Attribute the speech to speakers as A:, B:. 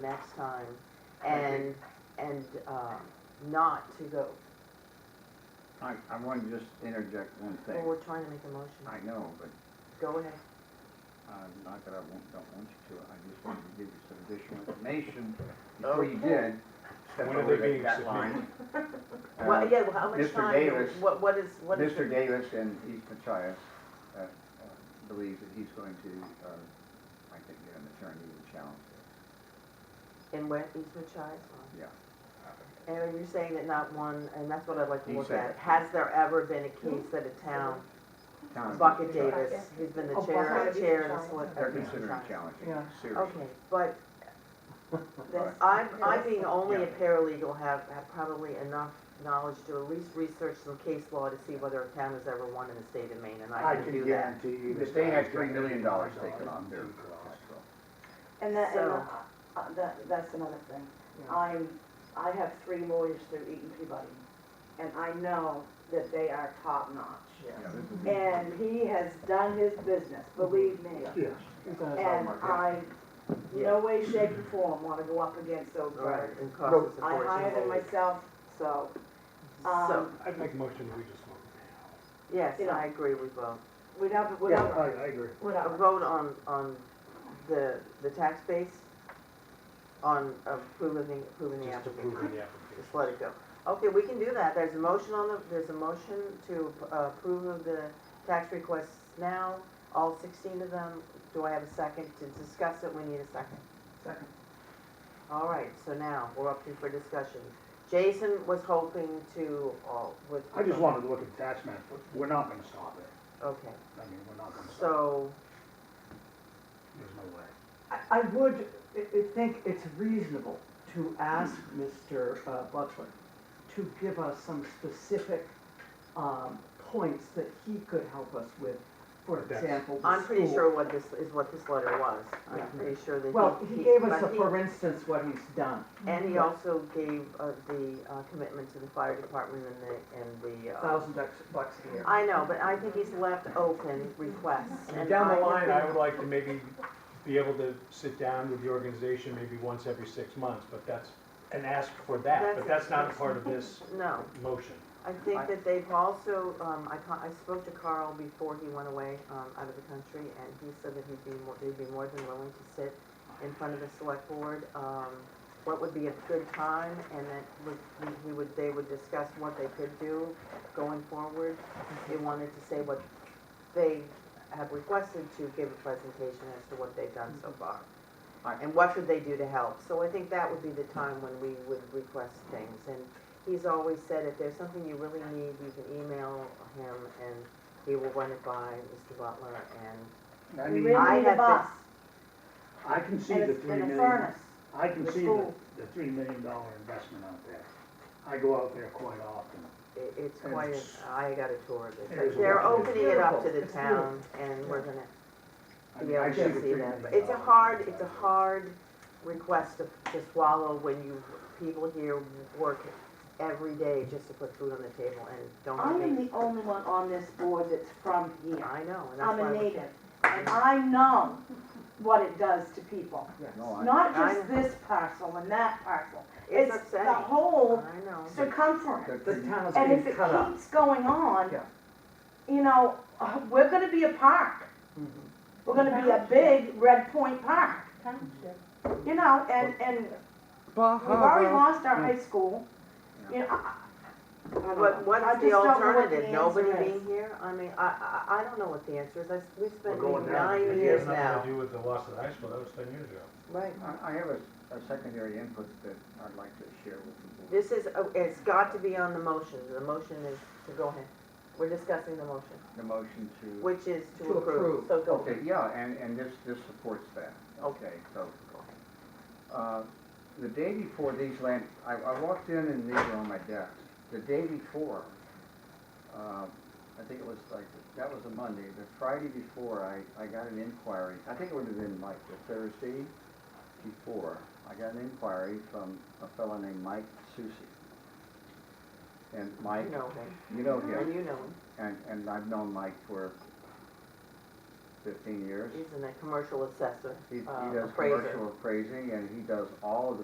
A: next time
B: I
A: and,
B: agree.
A: and, um, not to go,
B: I, I want to just interject one
A: well,
B: thing.
A: we're trying to make a motion.
B: I know, but
A: Go ahead.
B: I'm not that I won't, don't want you to, I just wanted to give you some additional information before you did. step
C: When are
B: over
C: they
B: that-
C: being
B: that
C: submitted?
B: line. Uh,
A: Well, yeah, well, how much
B: Mr.
A: time,
B: Davis-
A: what, what is, what is?
B: Mr.
A: the-
B: Davis and East Machias uh, uh, believes that he's going to, uh, I think, get an attorney to challenge this.
A: And where, East Machias?
B: Yeah.
A: And you're saying that not one, and that's what I'd like to
B: He
A: look
B: said
A: at,
B: it.
A: has there ever been a case that a town,
B: Town of
A: Bucket
B: East Machias.
A: Davis, who's been the
D: Oh,
A: chair,
D: Bucket
A: chair and
D: Davis.
A: the select.
B: They're
A: of East
B: considering
A: Machias.
B: challenging,
D: Yeah.
B: it, seriously.
A: Okay, but
B: Right.
A: I'm, I being only a
B: Yeah.
A: paralegal have, have probably enough knowledge to at least research some case law to see whether a town has ever won in the state of Maine, and I can do that.
C: you.
B: If they had three million dollars taken off their tax bill.
D: And that, and,
A: So-
D: uh, uh, that, that's another thing.
A: Yeah.
D: I'm, I have three lawyers through Eaton Peabody, and I know that they are top notch.
B: Yeah, this is-
D: And he has done his business, believe me.
C: Yes. uh,
D: And um, I, no way, shape, or form wanna go up against those
A: Right,
D: guys.
A: and cost us a
D: I hired
A: fortune.
D: them myself, so,
A: So,
D: um,
C: I'd make a motion, we just vote
A: yes,
D: you know.
A: I agree with both.
D: whatever,
C: now. Yeah,
D: whatever,
C: I, I agree.
A: A
D: whatever.
A: vote on, on the, the tax base, on approving, the- approving the
C: Just
A: application.
C: approving the
A: Just
C: application.
A: let it go. Okay, we can do that. There's a motion on the, there's a motion to uh, approve of the tax requests now, all sixteen of them. Do I have a second to discuss it? We need a second.
D: Second.
A: All right, so now we're up to for discussion. Jason was hoping to, uh, with.
C: I just wanted to look at the tax map, but we're not gonna stop it.
A: Okay,
C: I mean, we're not gonna stop
A: so,
C: it. There's no way.
E: I- I would i- i- think it's reasonable to ask Mr. uh, Butler to give us some specific um, points that he could help us with. For
C: That's-
E: example, the
A: I'm pretty
E: school.
A: sure what this, is what this letter was. I'm
E: Yeah.
A: pretty sure that he.
E: Well, he gave us,
A: but
E: a
A: he-
E: for instance, what he's done.
A: And he also gave uh, the uh, commitment to the fire department and the, and the. uh,
E: Thousand bucks, bucks a year.
A: I know, but I think he's left open requests. and
C: Down
A: I
C: the
A: would
C: line,
A: think-
C: I would like to maybe be able to sit down with the organization maybe once every six months, but that's, and ask for that, but that's not a part of this
A: No,
C: motion.
A: I think that they've also, um, I con- I spoke to Carl before he went away, um, out of the country, and he said that he'd be more, he'd be more than willing to sit in front of the select board, um, what would be a good time, and that would, we- we would, they would discuss what they could do going forward. They wanted to say what they have requested to give a presentation as to what they've done so far.
B: I-
A: And what should they do to help? So I think that would be the time when we would request things. And he's always said, if there's something you really need, you can email him and he will run it by Mr. Butler and.
F: I
D: We
F: mean,
D: really-
A: I
D: need a
A: have
D: bus.
A: been-
F: I can see
D: And
F: the
D: it's
F: three
D: in a
F: million,
D: furnace.
F: I can
D: the
F: see the,
D: school.
F: the three million dollar investment out there. I go out there quite often.
A: it- It's quite, a- I got a tour of
F: It
A: it.
F: is
A: But They're
F: a lot.
A: opening it up to the
E: It's beautiful.
A: town and we're gonna
F: I
A: to be
F: mean, I
A: able
F: see
A: to
F: the
A: see
F: $3
A: that.
F: million
A: But It's a
F: dollar
A: hard, it's a
F: investment.
A: hard request to, to swallow when you, people here work every day just to put food on the table and don't
D: I
A: have
D: am
A: any.
D: the only one on this board that's from here.
A: I know, and that's
D: I'm
A: why.
D: a
A: we-
D: native, and I know what it does to people.
B: No, I-
D: Not
A: Oh, I
D: just
A: know.
D: this parcel and that parcel.
A: It's
D: the
A: upsetting. Uh-huh.
D: whole
A: I know.
D: circumference.
B: that
E: The
B: three-
E: town is
D: And if
E: being
D: it
E: cut up.
D: keeps going on,
E: Yeah.
D: you know, uh, we're gonna be a park.
E: Mhm.
D: We're gonna be a big Red Point Park,
G: Township.
D: you know, and, and we've already lost our high school. You know, I- I- I don't
A: But
D: know.
A: what
D: I
A: is the
D: just don't know what the
A: alternative? Nobody
D: answer is.
A: being here? I mean, I, I, I don't know what the answer is. I, we
C: We're
A: spent
C: going down.
A: nine
C: It
A: years
C: has
A: now.
C: Nothing to do with the loss of the high school, that was ten years ago.
A: Right.
B: I, I have a, a secondary input that I'd like to share with you.
A: This is, oh, it's got to be on the motion. The motion is to go ahead. We're discussing the motion,
B: The motion to,
A: which is to
E: To
A: approve.
E: approve.
A: So go.
B: okay, yeah, and, and this, this supports that. Okay, so, uh, the day before these land, I, I walked in and these were on my desk. The day before, uh, I think it was like, that was a Monday, the Friday before, I, I got an inquiry. I think it would have been like the Thursday before, I got an inquiry from a fellow named Mike Susi. And
A: You
B: Mike,
A: know him,
B: you know him.
A: and you know him.
B: And, and I've known Mike for fifteen years.
A: He's uh, a commercial assessor,
B: He, he
A: uh,
B: does
A: appraiser.
B: commercial appraising and he does all of the